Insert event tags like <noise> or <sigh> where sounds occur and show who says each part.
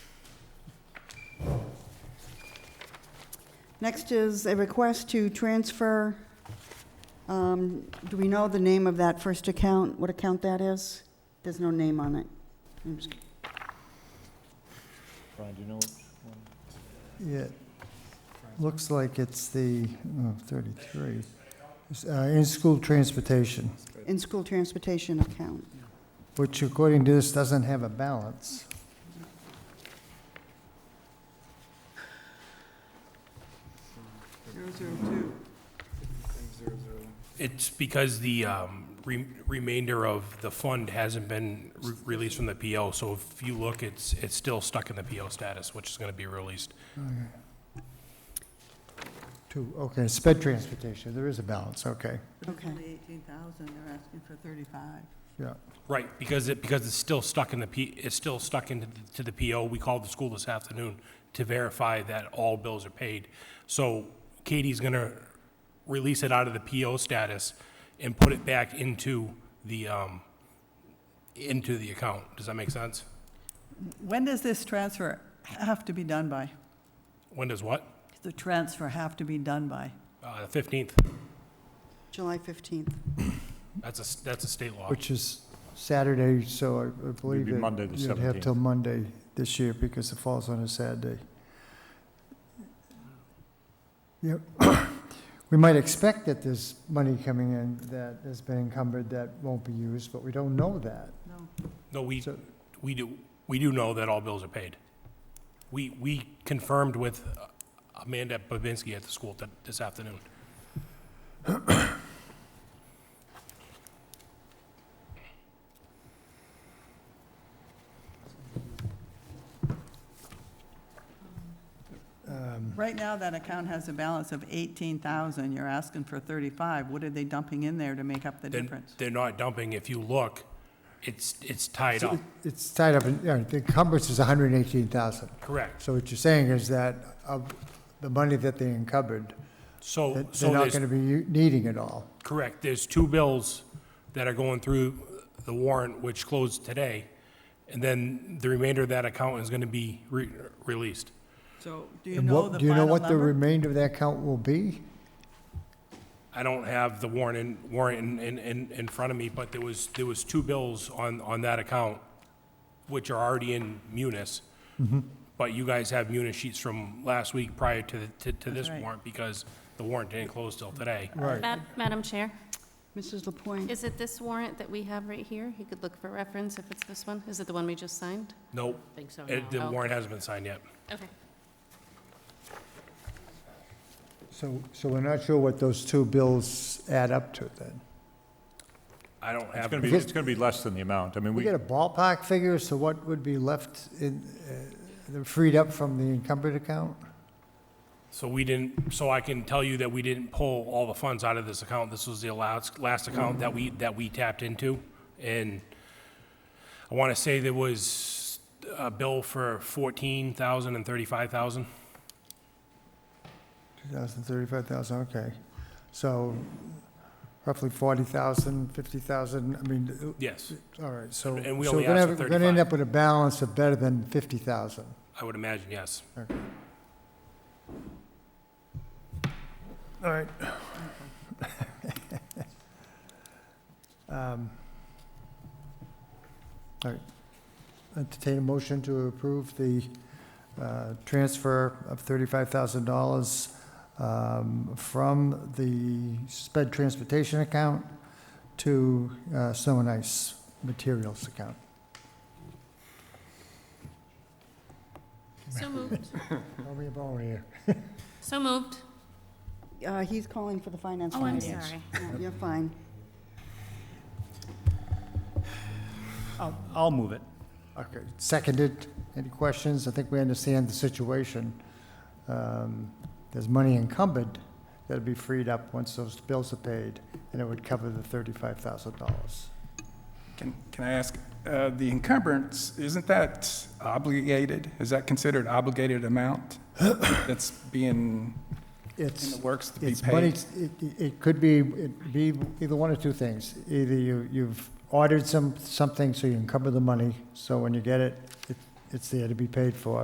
Speaker 1: Next is a request to transfer, um, do we know the name of that first account, what account that is? There's no name on it. I'm just-
Speaker 2: Brian, do you know which one?
Speaker 3: It looks like it's the, oh, 33, It's, uh, in-school transportation,
Speaker 1: In-school transportation account.
Speaker 3: which according to this doesn't have a balance.
Speaker 4: It's because the um, re- remainder of the fund hasn't been re- released from the PO, so if you look, it's, it's still stuck in the PO status, which is going to be released.
Speaker 3: Two, okay, sped transportation, there is a balance, okay,
Speaker 1: Okay.
Speaker 5: Only 18,000, they're asking for 35.
Speaker 3: yeah.
Speaker 4: Right, because it, because it's still stuck in the P, it's still stuck into, the- to the PO. We called the school this afternoon to verify that all bills are paid. So Katie's going to release it out of the PO status and put it back into the, um, into the account. Does that make sense?
Speaker 5: When does this transfer have to be done by?
Speaker 4: When does what?
Speaker 5: Does The transfer have to be done by?
Speaker 4: Uh, The 15th.
Speaker 1: July 15th.
Speaker 4: That's a, s- that's a state law.
Speaker 3: Which is Saturday, so I- I believe
Speaker 2: be Monday
Speaker 3: that
Speaker 2: the
Speaker 3: you'd have
Speaker 2: 17th.
Speaker 3: till Monday this year because it falls on a Saturday. Yep. <coughs> We might expect that there's money coming in that has been encumbered that won't be used, but we don't know that.
Speaker 5: No.
Speaker 4: No, we,
Speaker 3: So-
Speaker 4: we do, we do know that all bills are paid. We, we confirmed with uh, Amanda Babinski at the school th- this afternoon.
Speaker 3: Um,
Speaker 5: Right now, that account has a balance of 18,000, you're asking for 35. What are they dumping in there to make up the
Speaker 4: They're-
Speaker 5: difference?
Speaker 4: They're not dumping. If you look, it's, it's tied
Speaker 3: so
Speaker 4: up.
Speaker 3: it- It's tied up, in yeah, the encumbrance is 118,000.
Speaker 4: Correct.
Speaker 3: So what you're saying is that of the money that they encumbered,
Speaker 4: So,
Speaker 3: that
Speaker 4: so
Speaker 3: they're not
Speaker 4: there's,
Speaker 3: going to be u- needing it all.
Speaker 4: correct, there's two bills that are going through the warrant, which closed today. And then the remainder of that account is going to be re- released.
Speaker 5: So do you
Speaker 3: And
Speaker 5: know
Speaker 3: what-
Speaker 5: the
Speaker 3: Do you know
Speaker 5: final
Speaker 3: what the
Speaker 5: number?
Speaker 3: remainder of that count will be?
Speaker 4: I don't have the warrant in, warrant in, in- in, in front of me, but there was, there was two bills on, on that account, which are already in munis.
Speaker 2: Mm-hmm.
Speaker 4: But you guys have munis sheets from last week prior to, the- to, to this
Speaker 5: That's right.
Speaker 4: warrant, because the warrant didn't close till today.
Speaker 3: Right.
Speaker 6: Ma- Madam Chair,
Speaker 1: Mrs. Lapointe?
Speaker 6: is it this warrant that we have right here? You could look for reference if it's this one. Is it the one we just signed?
Speaker 4: Nope,
Speaker 6: Think so,
Speaker 4: it- the
Speaker 5: Oh.
Speaker 4: warrant hasn't been signed yet.
Speaker 6: Okay.
Speaker 3: So, so we're not sure what those two bills add up to then.
Speaker 4: I don't
Speaker 2: It's
Speaker 4: have,
Speaker 2: gonna be, it's gonna be less than the amount. I mean,
Speaker 3: We
Speaker 2: we,
Speaker 3: get a ballpark figure, so what would be left in, uh, the- freed up from the encumbered account?
Speaker 4: so we didn't, so I can tell you that we didn't pull all the funds out of this account. This was the last, last account that we, that we tapped into. And I want to say there was a bill for 14,000 and 35,000.
Speaker 3: 2,000, 35,000, okay. So roughly 40,000, 50,000, I mean,
Speaker 4: Yes,
Speaker 3: uh, all right, so.
Speaker 4: And we
Speaker 3: so
Speaker 4: only
Speaker 3: we're gonna
Speaker 4: asked for
Speaker 3: have- We're going to end
Speaker 4: 35.
Speaker 3: up with a balance of better than 50,000.
Speaker 4: I would imagine, yes.
Speaker 3: All right. <laughs> Um, All right. Entertain a motion to approve the uh, transfer of $35,000 um, from the sped transportation account to uh, snow and ice materials account.
Speaker 6: So moved.
Speaker 3: Throw me a bone here.
Speaker 6: So moved.
Speaker 1: Uh, He's calling for the finance
Speaker 6: Oh, I'm
Speaker 1: committee.
Speaker 6: sorry.
Speaker 1: No, You're fine.
Speaker 7: I'll, I'll move it.
Speaker 3: Okay, seconded. Any questions? I think we understand the situation. Um, There's money encumbered that'll be freed up once those bills are paid, and it would cover the thirty-five thousand dollars.
Speaker 8: Can, can I ask, uh, the encumbrance, isn't that obligated? Is that considered obligated amount that's being, in the
Speaker 3: It's,
Speaker 8: works to be
Speaker 3: it's money,
Speaker 8: paid?
Speaker 3: it, it- it could be, it be either one or two things. Either you, you've ordered some, something, so you encumber the money, so when you get it, it, it's there to be paid for,